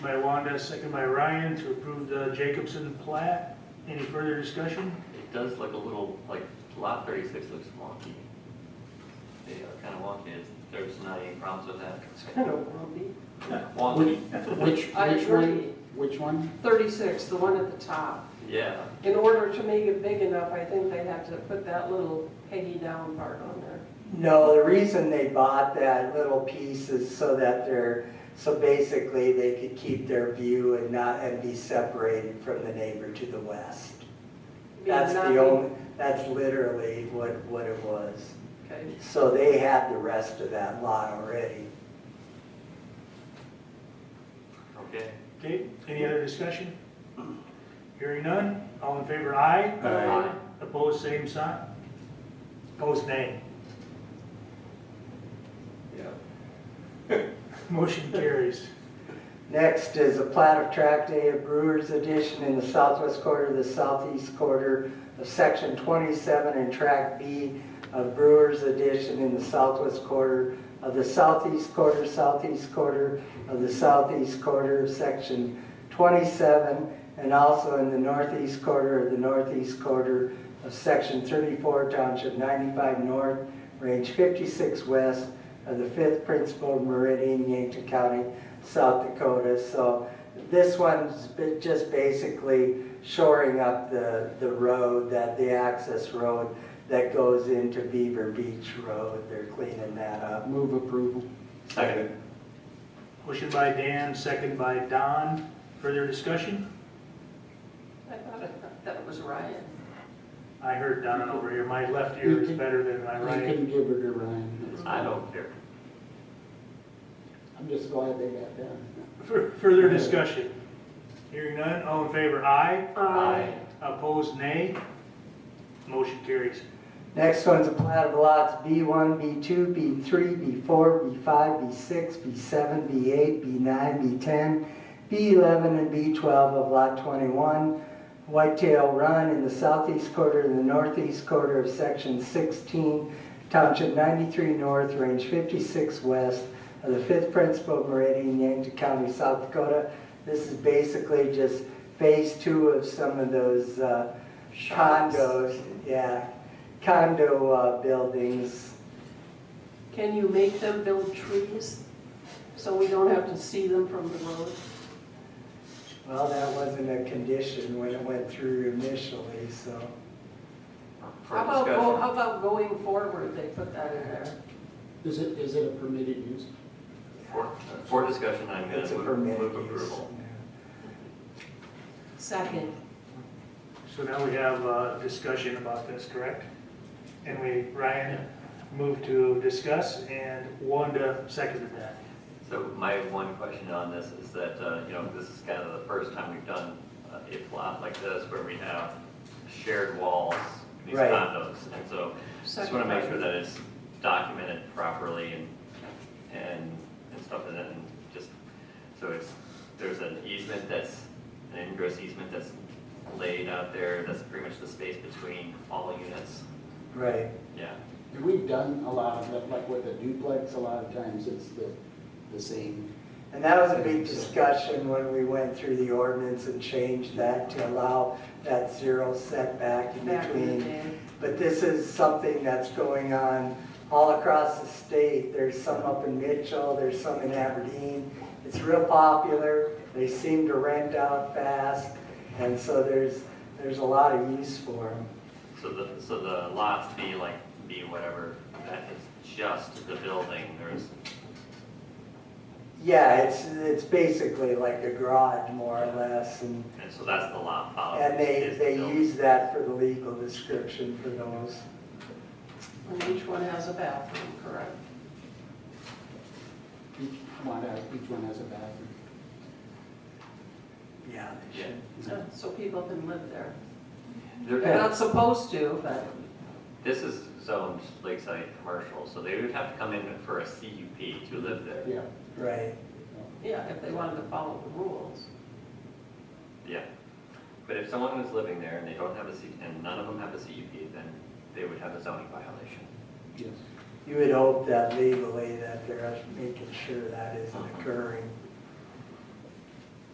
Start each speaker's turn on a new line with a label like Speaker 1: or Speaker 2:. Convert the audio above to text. Speaker 1: By Wanda, second by Ryan, to approve the Jacobson plat. Any further discussion?
Speaker 2: It does look a little, like, lot thirty-six looks wonky. They are kind of wonky, It's- there's not any problems with that.
Speaker 3: It's kind of lumpy.
Speaker 2: Wonky,
Speaker 4: Which, which,
Speaker 3: I
Speaker 4: which
Speaker 3: agree.
Speaker 4: one, which one?
Speaker 3: 36, the one at the top.
Speaker 2: yeah,
Speaker 3: In order to make it big enough, I think they have to put that little Peggy Down part on there.
Speaker 5: No, the reason they bought that little piece is so that they're, so basically they could keep their view and not, and be separated from the neighbor to the west.
Speaker 3: Being
Speaker 5: That's
Speaker 3: not be-
Speaker 5: the only, that's literally what, what it was.
Speaker 3: Okay,
Speaker 5: So they had the rest of that lot already.
Speaker 2: okay.
Speaker 1: Okay, any other discussion? Hearing none, all in favor, aye.
Speaker 3: Aye.
Speaker 1: Opposed, same sign. Opposed, nay.
Speaker 2: Yeah.
Speaker 1: Motion carries.
Speaker 5: Next is a plat of tract A of Brewers Edition in the southwest quarter, the southeast quarter of section 27, and tract B of Brewers Edition in the southwest quarter of the southeast quarter, southeast quarter of the southeast quarter of section 27, and also in the northeast quarter of the northeast quarter of section 34, township 95 north, range 56 west of the 5th principal meridian, Yankton County, South Dakota. So this one's been just basically shoring up the, the road, that, the access road that goes into Beaver Beach Road. They're cleaning that up.
Speaker 4: Move approval.
Speaker 2: Second.
Speaker 1: Motion by Dan, second by Don. Further discussion?
Speaker 3: I thought it- that was Ryan.
Speaker 1: I heard Don over here. My left ear is better than my
Speaker 4: You
Speaker 1: right.
Speaker 4: can give her to Ryan. It's-
Speaker 2: I don't care.
Speaker 4: I'm just glad they got done.
Speaker 1: Fur- Further discussion? Hearing none, all in favor, aye.
Speaker 2: Aye.
Speaker 1: Opposed, nay. Motion carries.
Speaker 5: Next one's a plat of lots B1, B2, B3, B4, B5, B6, B7, B8, B9, B10, B11, and B12 of Lot 21, Whitetail Run in the southeast quarter and the northeast quarter of Section 16, Township 93 North, Range 56 West of the 5th Principal Meridian, Yankton County, South Dakota. This is basically just phase two of some of those uh, condos, yeah, condo uh, buildings.
Speaker 3: Can you make them build trees so we don't have to see them from the road?
Speaker 5: Well, that wasn't a condition when it went through initially, so.
Speaker 2: For
Speaker 3: How about, go-
Speaker 2: discussion.
Speaker 3: how about going forward, they put that in there?
Speaker 4: Is it, is it a permitted use?
Speaker 2: For, for discussion, I'm gonna
Speaker 5: It's a
Speaker 2: move,
Speaker 5: permitted
Speaker 2: move
Speaker 5: use.
Speaker 2: approval.
Speaker 3: Second.
Speaker 1: So now we have a discussion about this, correct? And we, Ryan moved to discuss and Wanda seconded that.
Speaker 2: So my one question on this is that, uh, you know, this is kind of the first time we've done uh, a plot like this where we have shared walls, these
Speaker 5: Right.
Speaker 2: condos. And so Just want to make sure that it's documented properly and, and, and stuff, and then just, so it's, there's an easement that's, an ingress easement that's laid out there, that's pretty much the space between all units,
Speaker 5: Right.
Speaker 2: yeah.
Speaker 4: And We've done a lot of that, like with a duplex, a lot of times it's the, the same.
Speaker 5: And that was a big discussion when we went through the ordinance and changed that to allow that zero setback in
Speaker 3: Back in the
Speaker 5: between.
Speaker 3: day.
Speaker 5: But this is something that's going on all across the state. There's some up in Mitchell, there's some in Aberdeen. It's real popular, they seem to rent out fast, and so there's, there's a lot of use for them.
Speaker 2: So the, so the lots B, like, B whatever, that is just the building, there's,
Speaker 5: Yeah, it's, it's basically like a garage more or less, and,
Speaker 2: and so that's the lot policy.
Speaker 5: and they,
Speaker 2: is the
Speaker 5: they
Speaker 2: building.
Speaker 5: use that for the legal description for those.
Speaker 3: And each one has a bathroom, correct?
Speaker 4: Each one, has- each one has a bathroom.
Speaker 5: Yeah, they should.
Speaker 3: So- So people can live there.
Speaker 2: There-
Speaker 3: They're not supposed to, but
Speaker 2: This is zoned lakeside commercial, so they would have to come in for a CUP to live there.
Speaker 4: Yeah.
Speaker 5: Right.
Speaker 3: yeah, if they wanted to follow the rules.
Speaker 2: Yeah, but if someone was living there and they don't have a C, and none of them have a CUP, then they would have a zoning violation.
Speaker 4: Yes.
Speaker 5: You would hope that legally that they're making sure that isn't occurring.